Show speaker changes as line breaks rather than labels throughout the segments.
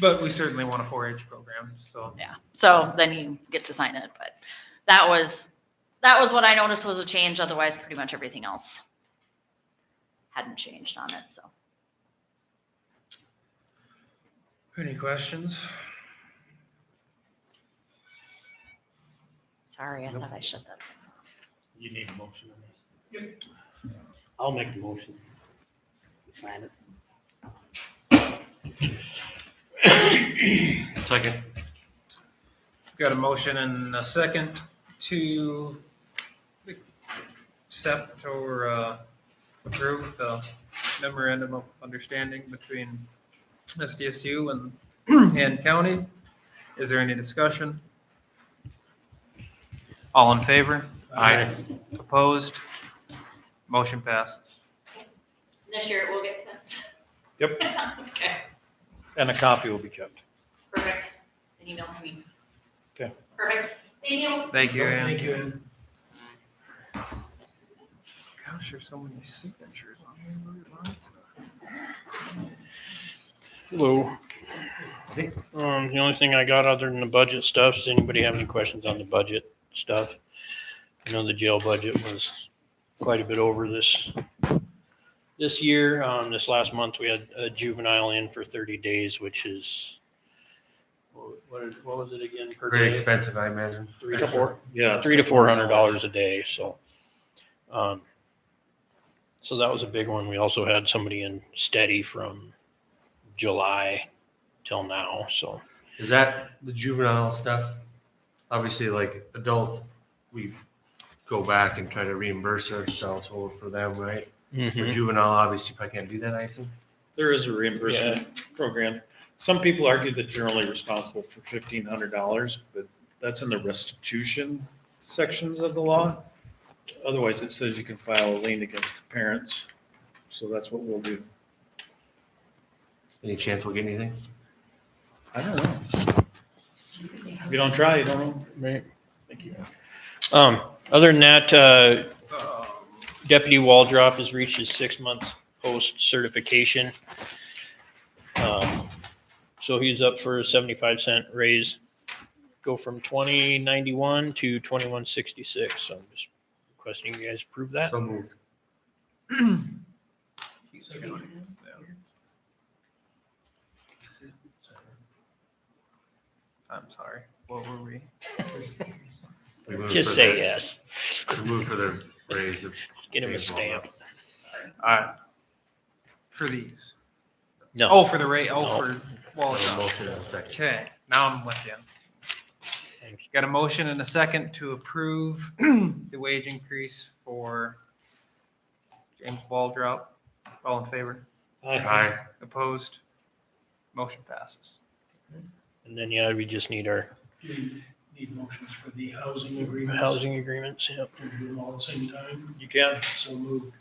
But we certainly want a four H program, so.
Yeah, so then you get to sign it, but that was, that was what I noticed was a change, otherwise pretty much everything else hadn't changed on it, so.
Any questions?
Sorry, I
Nope.
thought I shut that.
You need a motion on this? Yep. I'll make the motion. Sign it.
Second.
Got a motion and a second to accept or uh, approve the memorandum of understanding between SDSU and and County. Is there any discussion? All in favor?
Aye.
Opposed? Motion passes.
This year it will get sent.
Yep.
Okay,
And a copy will be kept.
perfect. An email to me.
Okay.
Perfect. Thank you.
Thank you, Ann.
Oh, Thank you, Ann.
Gosh, there's so many signatures on here.
Hello. Um, the only thing I got other than the budget stuff, does anybody have any questions on the budget stuff? I know the jail budget was quite a bit over this, this year. Um, this last month, we had a juvenile in for thirty days, which is, what, what was it again per
Very
day?
expensive, I imagine.
Three to four?
Yeah.
three to four hundred dollars a day, so. um, So that was a big one. We also had somebody in steady from July till now, so.
Is that the juvenile stuff? Obviously, like adults, we go back and try to reimburse ourselves over for them, right?
Mm-hmm.
For juvenile, obviously, if I can't do that, I assume.
There is a reimbursement program. Some people argue that you're only responsible for fifteen hundred dollars, but that's in the restitution sections of the law. Otherwise, it says you can file a lien against the parents. So that's what we'll do.
Any chance we'll get anything?
I don't know. If you don't try, you don't know.
Right.
Thank you.
Um, other than that, uh,
Um,
Deputy Waldrop has reached his six-month post certification. Um, So he's up for a seventy-five cent raise, go from twenty ninety-one to twenty-one sixty-six. So I'm just requesting you guys approve that.
So moved.
I'm sorry, what were we?
We moved
Just
for
say
the-
yes.
We moved for the raise of.
Get him a
James
stamp.
Waldrop.
Uh, For these?
No,
Oh, for the rate, oh,
No.
for, well,
So
no.
Motion and a second.
okay, now I'm with you.
Thank
Got a motion and a second to approve the wage increase for James Waldrop. All in favor?
Aye.
Opposed? Motion passes.
and then, yeah, we just need our
Need motions for the housing agreements.
housing agreements, yep.
Can we do them all at the same time?
You can.
So moved.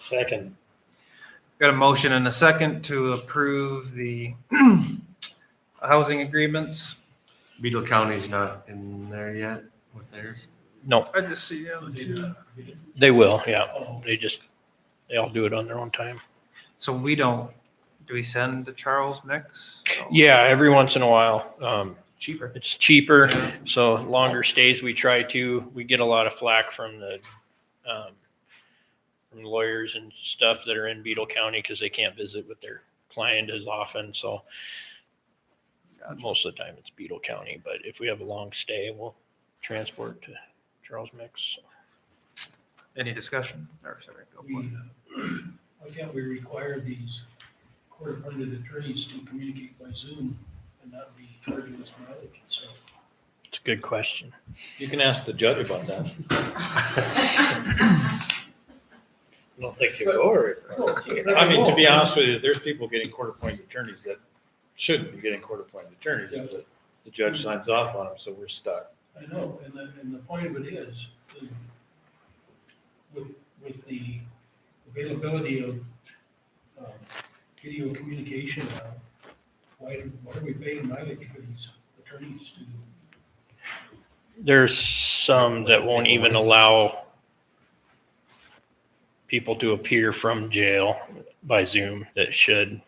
Second.
Got a motion and a second to approve the housing agreements.
Beetle County's not in there yet with theirs.
No,
I just see
They
them
did not.
they will, yeah.
Oh,
They just, they all do it on their own time.
So we don't, do we send to Charles Mix?
Yeah, every once in a while. Um,
Cheaper.
it's cheaper, so longer stays we try to. We get a lot of flack from the, um, from lawyers and stuff that are in Beetle County because they can't visit with their client as often, so. Most of the time it's Beetle County, but if we have a long stay, we'll transport to Charles Mix.
Any discussion? Or sorry, go
we,
for it.
uh, Why can't we require these court-appointed attorneys to communicate by Zoom and not be charging us mileage? So
It's a good question.
You can ask the judge about that.
I don't think
you're
over.
I mean, to be honest with you, there's people getting court-appointed attorneys that shouldn't be getting court-appointed attorneys,
Yeah.
but the judge signs off on them, so we're stuck.
I know, and the, and the point of it is, is with, with the availability of um, video communication, now, why, do- why are we paying mileage for these attorneys to?
There's some that won't even allow people to appear from jail by Zoom that should.